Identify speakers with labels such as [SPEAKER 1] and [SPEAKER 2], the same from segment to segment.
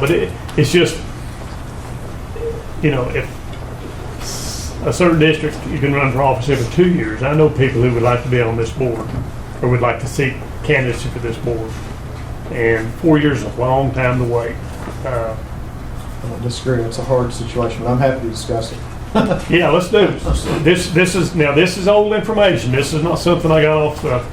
[SPEAKER 1] But it, it's just, you know, if a certain district, you can run for office every two years. I know people who would like to be on this board, or would like to seek candidacy for this board. And four years is a long time to wait. Uh,
[SPEAKER 2] I don't disagree, it's a hard situation, but I'm happy to discuss it.
[SPEAKER 1] Yeah, let's do this. This, this is, now, this is old information. This is not something I got off uh, the,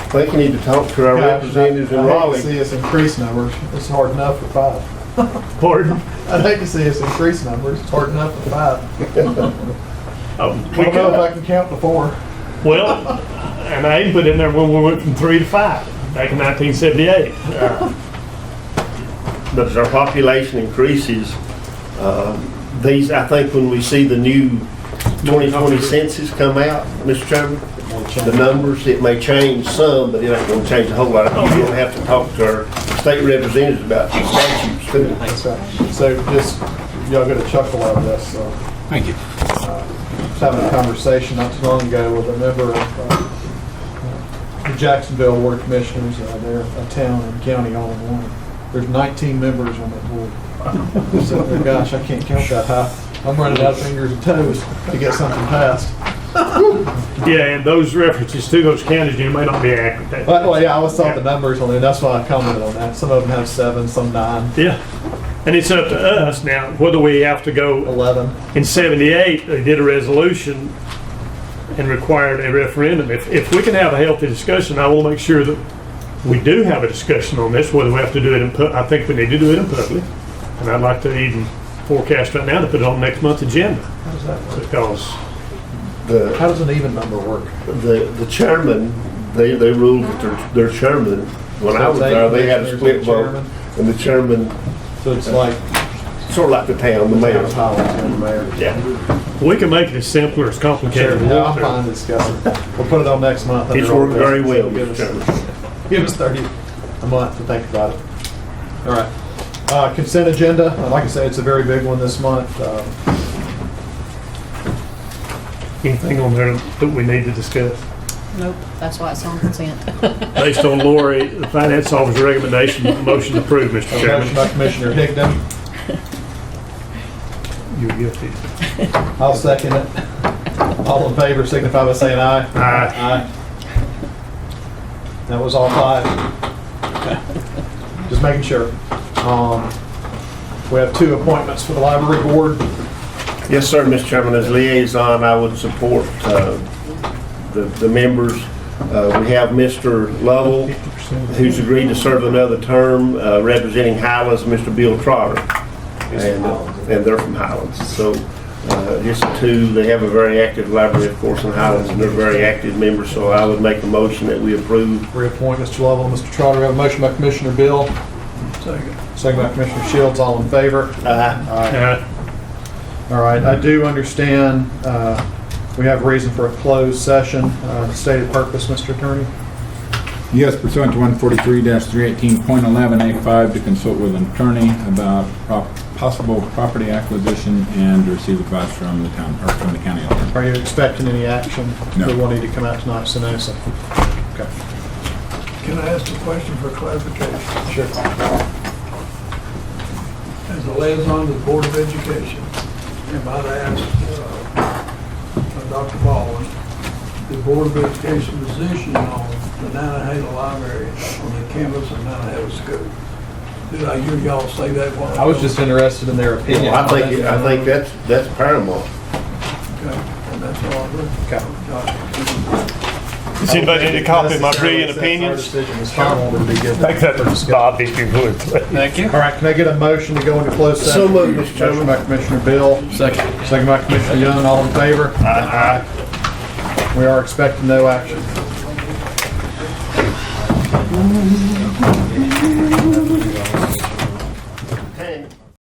[SPEAKER 3] I think we need to talk to our representatives in
[SPEAKER 2] I hate to
[SPEAKER 3] Raleigh.
[SPEAKER 2] see us increase numbers, it's hard enough for five.
[SPEAKER 1] pardon?
[SPEAKER 2] I'd hate to see us increase numbers, it's hard enough for five.
[SPEAKER 1] Oh,
[SPEAKER 2] I
[SPEAKER 1] we
[SPEAKER 2] don't know if
[SPEAKER 1] could-
[SPEAKER 2] I can count to four.
[SPEAKER 1] Well, and I even put in there when we went from three to five back in 1978. Uh,
[SPEAKER 3] But as our population increases, uh, these, I think when we see the new 2020 census come out, Mr. Chairman, the numbers, it may change some, but it ain't gonna change a whole lot. You're gonna have to talk to our state representatives about these statutes too.
[SPEAKER 2] That's right. So just, y'all get a chuckle out of this, so.
[SPEAKER 4] Thank you.
[SPEAKER 2] was having a conversation not too long ago with a member of uh, the Jacksonville Board of Commissioners, uh, they're a town and county all in one. There's 19 members on that board. So, oh gosh, I can't count that high. I'm running out of fingers and toes to get something passed.
[SPEAKER 1] Yeah, and those references to those counties, you may not be accurate.
[SPEAKER 2] But, well, yeah, I always thought the numbers on there, that's why I commented on that. Some of them have seven, some nine,
[SPEAKER 1] Yeah, and it's up to us now, whether we have to go,
[SPEAKER 2] 11.
[SPEAKER 1] in 78, they did a resolution and required a referendum. If, if we can have a healthy discussion, I will make sure that we do have a discussion on this, whether we have to do it in, pu- I think we need to do it in public. And I'd like to even forecast right now to put it on next month's agenda,
[SPEAKER 2] How does that work?
[SPEAKER 1] because
[SPEAKER 3] The
[SPEAKER 2] How does an even number work?
[SPEAKER 3] the, the chairman, they, they ruled that their, their chairman, when I was there, they had a split vote. And the chairman,
[SPEAKER 2] So it's like,
[SPEAKER 3] sort of like the town, the
[SPEAKER 2] mayor,
[SPEAKER 3] mayor.
[SPEAKER 2] the mayor.
[SPEAKER 3] Yeah,
[SPEAKER 1] we can make it as simple or as
[SPEAKER 2] Sure,
[SPEAKER 1] complicated. as we
[SPEAKER 2] yeah, I'm
[SPEAKER 1] want to.
[SPEAKER 2] fine discussing. We'll put it on next month. under
[SPEAKER 3] it's
[SPEAKER 2] old
[SPEAKER 3] worked very
[SPEAKER 2] business.
[SPEAKER 3] well,
[SPEAKER 2] Give
[SPEAKER 3] Mr.
[SPEAKER 2] us-
[SPEAKER 3] Chairman.
[SPEAKER 2] Give us 30 a month to think about it. All right. Uh, Consent agenda, Uh, like I say, it's a very big one this month. Uh,
[SPEAKER 1] Anything on there that we need to discuss?
[SPEAKER 5] Nope, that's why it's on consent.
[SPEAKER 1] Based on Lori, the finance officer's recommendation, motion approved, Mr.
[SPEAKER 2] a Motion
[SPEAKER 1] Chairman.
[SPEAKER 2] by Commissioner Higdon,
[SPEAKER 1] You're guilty.
[SPEAKER 2] I'll second it. All in favor signify by saying aye.
[SPEAKER 1] Aye.
[SPEAKER 2] That was all five. Just making sure. Um, We have two appointments for the library board.
[SPEAKER 3] Yes, sir, Mr. Chairman, as liaison, I would support uh, the the members. Uh, We have Mr. Lovell, who's agreed to serve another term, uh, representing Highlands, Mr. Bill Trotter. And uh, and they're from Highlands. So uh, just two, they have a very active library, of course, in Highlands, and they're very active members, so I would make a motion that we approve
[SPEAKER 2] reappoint Mr. Lovell, and Mr. Trotter. We have a motion by Commissioner Bill. Second. Second by Commissioner Shields, all in favor? Aye.
[SPEAKER 1] Uh,
[SPEAKER 2] All right, I do understand, uh, we have reason for a closed session, uh, stated purpose, Mr. Attorney?
[SPEAKER 4] Yes, pursuant to 143-318.11A5 to consult with an attorney about prop- possible property acquisition and receive advice from the town, or from the county attorney.
[SPEAKER 2] Are you expecting any action?
[SPEAKER 4] No.
[SPEAKER 2] We will need to come out tonight, so no, so. Okay.
[SPEAKER 6] Can I ask a question for clarification?
[SPEAKER 2] Sure.
[SPEAKER 6] As a liaison to the Board of Education, if I'd asked uh, uh, Dr. Baldwin, the Board of Education position on the Nantahala Library on the campus of Nantahala School. Did I hear y'all say that one?
[SPEAKER 2] I was just interested in their opinion.
[SPEAKER 3] I think, I think that's that's paramount.
[SPEAKER 6] Okay, and that's all I did.
[SPEAKER 2] Okay.
[SPEAKER 1] Does anybody need a copy of my brilliant opinions?
[SPEAKER 2] That's our decision. It's final, it'll be good.
[SPEAKER 1] Take that to Bob if you would, please.
[SPEAKER 2] Thank you. All right, can I get a motion to go into closed session?
[SPEAKER 3] So moved, Mr. Chairman.
[SPEAKER 2] Motion by Commissioner Bill. Second. Second by Commissioner Young, all in favor? Aye. We are expecting no action.